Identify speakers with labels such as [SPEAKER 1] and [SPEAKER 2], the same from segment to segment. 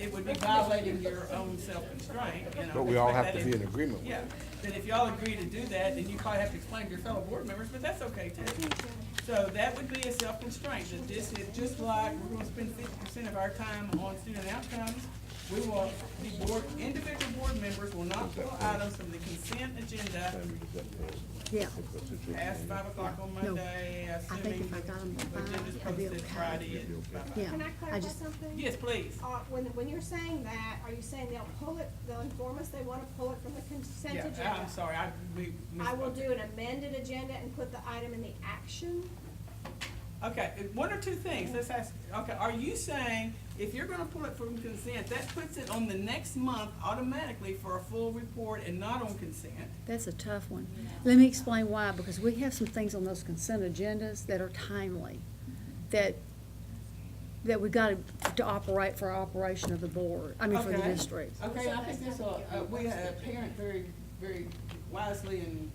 [SPEAKER 1] It would be violating your own self-constraint, you know.
[SPEAKER 2] But we all have
[SPEAKER 1] that
[SPEAKER 2] to
[SPEAKER 1] if-
[SPEAKER 2] be in agreement with
[SPEAKER 1] Yeah, but if y'all agree to do that, then you probably have to explain to your fellow board members, but that's okay too. So that would be a self-constraint, that this is, just like we're gonna spend fifty percent of our time on student outcomes, we will, the board, individual board members will not pull items from the consent agenda
[SPEAKER 3] Yeah,
[SPEAKER 1] past five o'clock on Monday,
[SPEAKER 3] I think
[SPEAKER 1] assuming
[SPEAKER 3] if I got them
[SPEAKER 1] the
[SPEAKER 3] by,
[SPEAKER 1] agenda's
[SPEAKER 3] I'd be
[SPEAKER 1] posted
[SPEAKER 3] okay.
[SPEAKER 1] Friday at five.
[SPEAKER 3] Yeah,
[SPEAKER 4] Can I
[SPEAKER 3] I
[SPEAKER 4] clarify
[SPEAKER 3] just,
[SPEAKER 4] something?
[SPEAKER 1] Yes, please.
[SPEAKER 4] Uh, when, when you're saying that, are you saying they'll pull it, they'll inform us they wanna pull it from the consent
[SPEAKER 1] Yeah,
[SPEAKER 4] agenda?
[SPEAKER 1] I'm sorry, I, we.
[SPEAKER 4] I will
[SPEAKER 1] misspoke.
[SPEAKER 4] do an amended agenda and put the item in the action.
[SPEAKER 1] Okay, if- one or two things, let's ask, okay, are you saying if you're gonna pull it from consent, that puts it on the next month automatically for a full report and not on consent?
[SPEAKER 3] that's a tough one. Let me explain why, because we have some things on those consent agendas that are timely, that, that we got to operate for our operation of the board, I mean, for the
[SPEAKER 1] Okay.
[SPEAKER 3] district.
[SPEAKER 1] Okay, I think this will, uh, we had a parent very, very wisely and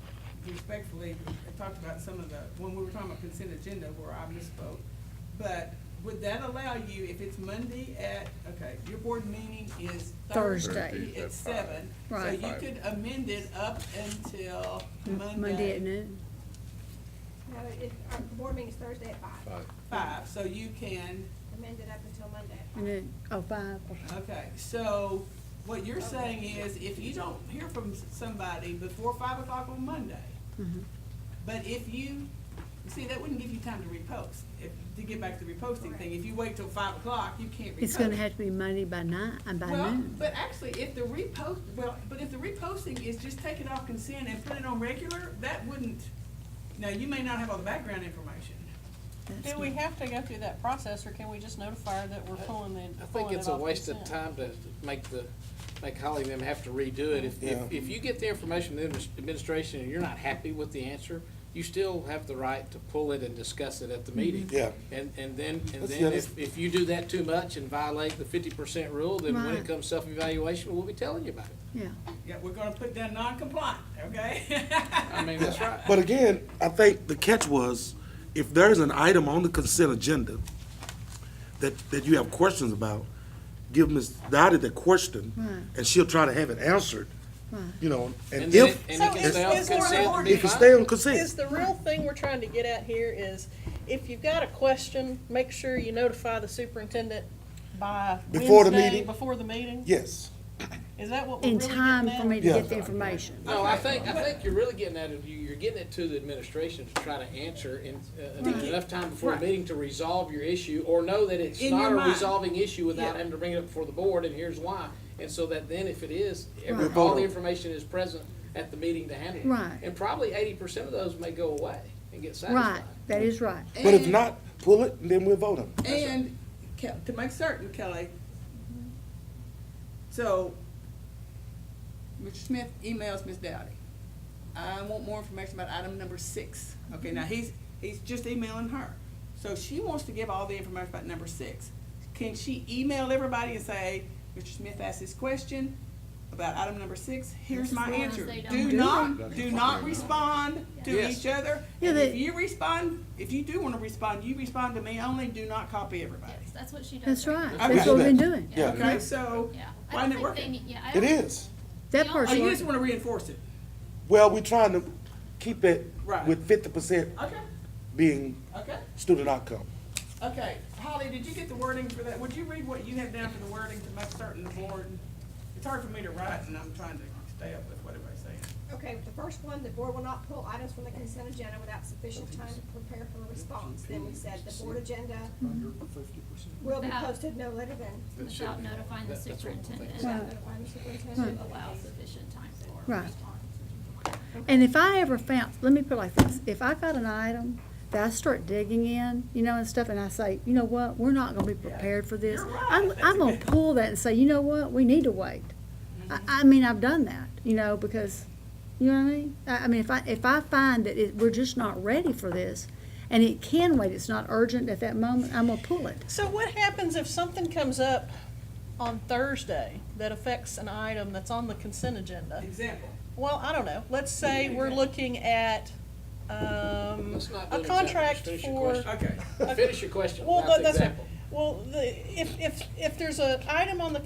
[SPEAKER 1] respectfully talked about some of the, when we were talking about consent agenda where I misspoke. But would that allow you, if it's Monday at, okay, your board meeting is Thursday
[SPEAKER 3] Thursday.
[SPEAKER 1] at seven.
[SPEAKER 3] Right.
[SPEAKER 1] So you could amend it up until Monday.
[SPEAKER 3] Monday at noon.
[SPEAKER 4] No, it, our board meeting's Thursday at five,
[SPEAKER 1] Five, so you can,
[SPEAKER 4] amended up until Monday at five.
[SPEAKER 3] Noon, oh, five, okay.
[SPEAKER 1] okay, so what you're saying is if you don't hear from s- somebody before five o'clock on Monday,
[SPEAKER 3] Mhm.
[SPEAKER 1] But if you, you see, that wouldn't give you time to repost, if, to get back to the reposting thing. If you wait till five o'clock, you can't repost.
[SPEAKER 3] It's gonna have to be Monday by nine, uh, by
[SPEAKER 1] Well,
[SPEAKER 3] noon.
[SPEAKER 1] but actually, if the repost, well, but if the reposting is just take it off consent and put it on regular, that wouldn't, now, you may not have all the background information.
[SPEAKER 3] That's
[SPEAKER 5] Do we
[SPEAKER 3] not-
[SPEAKER 5] have to go through that process, or can we just notify her that we're pulling the,
[SPEAKER 6] I think
[SPEAKER 5] pulling it
[SPEAKER 6] it's a
[SPEAKER 5] off
[SPEAKER 6] waste of
[SPEAKER 5] consent?
[SPEAKER 6] time to make the, make Holly and them have to redo it. If,
[SPEAKER 2] Yeah.
[SPEAKER 6] if, if you get the information from the adminis- administration and you're not happy with the answer, you still have the right to pull it and discuss it at the meeting.
[SPEAKER 2] Yeah.
[SPEAKER 6] And, and then, and
[SPEAKER 2] That's
[SPEAKER 6] then
[SPEAKER 2] the
[SPEAKER 6] if, if you do that too much and violate the fifty percent rule, then when
[SPEAKER 3] Right.
[SPEAKER 6] it comes self-evaluation, we'll be telling you about it.
[SPEAKER 3] Yeah,
[SPEAKER 1] Yeah, we're gonna put down non-compliant, okay?
[SPEAKER 6] I mean, that's right.
[SPEAKER 7] But again, I think the catch was, if there's an item on the consent agenda that, that you have questions about, give Ms. Dottie the question,
[SPEAKER 3] Right.
[SPEAKER 7] and she'll try to have it answered, you know,
[SPEAKER 6] And
[SPEAKER 7] and
[SPEAKER 6] then it-
[SPEAKER 7] if,
[SPEAKER 6] And it can
[SPEAKER 5] So
[SPEAKER 6] stay
[SPEAKER 5] is-
[SPEAKER 6] on
[SPEAKER 5] is there an
[SPEAKER 6] consent and be
[SPEAKER 7] if you
[SPEAKER 6] fine.
[SPEAKER 7] stay on consent,
[SPEAKER 5] Is the real thing we're trying to get at here is, if you've got a question, make sure you notify the superintendent by
[SPEAKER 2] Before the
[SPEAKER 5] Wednesday,
[SPEAKER 2] meeting?
[SPEAKER 5] before the meeting?
[SPEAKER 2] Yes.
[SPEAKER 5] Is that what we're
[SPEAKER 3] in
[SPEAKER 5] really getting
[SPEAKER 3] time for
[SPEAKER 5] at?
[SPEAKER 3] me to
[SPEAKER 2] Yeah.
[SPEAKER 3] get the information.
[SPEAKER 6] No, Oh, I think, I think you're really getting at it, you- you're getting it to the administration to try to answer in, uh, in enough time before the meeting to resolve your issue, or know that it's
[SPEAKER 1] In
[SPEAKER 6] not
[SPEAKER 1] your
[SPEAKER 6] a
[SPEAKER 1] mind.
[SPEAKER 6] resolving issue without
[SPEAKER 1] Yeah.
[SPEAKER 6] having to bring it up before the board, and here's why. And so that then, if it is, every-
[SPEAKER 3] Right.
[SPEAKER 6] all the information is present at the meeting to handle it.
[SPEAKER 3] Right.
[SPEAKER 6] And probably eighty percent of those may go away and get
[SPEAKER 3] Right,
[SPEAKER 6] satisfied.
[SPEAKER 3] that is right.
[SPEAKER 2] But if not, pull it, and then we'll vote on it.
[SPEAKER 1] And Ke- to make certain, Kelly, so Mr. Smith emails Ms. Dowdy. I want more information about item number six. Okay, now he's, he's just emailing her. So she wants to give all the information about number six. Can she email everybody and say, Mr. Smith asked this question about item number six, here's my answer? Do not, do not respond to
[SPEAKER 6] Yes.
[SPEAKER 1] each other.
[SPEAKER 3] Yeah,
[SPEAKER 1] And if
[SPEAKER 3] they-
[SPEAKER 1] you respond, if you do wanna respond, you respond to me only, do not copy everybody.
[SPEAKER 8] Yes, that's what she does.
[SPEAKER 3] That's right,
[SPEAKER 1] Okay.
[SPEAKER 3] that's what we've been doing.
[SPEAKER 2] Yeah.
[SPEAKER 1] Okay, so,
[SPEAKER 8] Yeah. I
[SPEAKER 1] why isn't it
[SPEAKER 8] don't think they
[SPEAKER 1] working?
[SPEAKER 8] need- Yeah, I
[SPEAKER 2] It
[SPEAKER 8] don't-
[SPEAKER 2] is.
[SPEAKER 3] That
[SPEAKER 8] Oh,
[SPEAKER 1] Oh,
[SPEAKER 3] part's
[SPEAKER 1] you
[SPEAKER 3] working.
[SPEAKER 1] just wanna reinforce it?
[SPEAKER 2] Well, we're trying to keep it
[SPEAKER 1] Right.
[SPEAKER 2] with fifty percent
[SPEAKER 1] Okay,
[SPEAKER 2] being
[SPEAKER 1] okay,
[SPEAKER 2] student outcome.
[SPEAKER 1] okay. Holly, did you get the wording for that? Would you read what you have down for the wording to make certain the board? It's hard for me to write and I'm trying to stay up with what everybody's saying.
[SPEAKER 4] Okay, the first one, the board will not pull items from the consent agenda without sufficient time to prepare for a response. Then we said the board agenda will be posted no later than
[SPEAKER 8] Without notifying the superintendent,
[SPEAKER 4] without notifying the
[SPEAKER 8] to
[SPEAKER 4] superintendent.
[SPEAKER 8] allow sufficient time for
[SPEAKER 3] Right.
[SPEAKER 8] response.
[SPEAKER 3] And if I ever found, let me put it like this, if I got an item that I start digging in, you know, and stuff, and I say, you know what, we're not gonna be prepared for this.
[SPEAKER 1] You're right.
[SPEAKER 3] I'm,
[SPEAKER 1] That's a
[SPEAKER 3] I'm gonna
[SPEAKER 1] good-
[SPEAKER 3] pull that and say, you know what, we need to wait. I, I mean, I've done that, you know, because, you know what I mean? I, I mean, if I, if I find that it, we're just not ready for this, and it can wait, it's not urgent at that moment, I'm gonna pull it.
[SPEAKER 5] So what happens if something comes up on Thursday that affects an item that's on the consent agenda?
[SPEAKER 1] Example.
[SPEAKER 5] Well, I don't know, let's say we're looking at, um,
[SPEAKER 6] Let's not do
[SPEAKER 5] a
[SPEAKER 6] an example. Just
[SPEAKER 5] contract
[SPEAKER 6] finish your
[SPEAKER 5] for.
[SPEAKER 6] question.
[SPEAKER 1] Okay.
[SPEAKER 6] Finish your question
[SPEAKER 5] Well,
[SPEAKER 6] without
[SPEAKER 5] that-
[SPEAKER 6] the
[SPEAKER 5] that's,
[SPEAKER 6] example.
[SPEAKER 5] well, the, if, if, if there's an item on the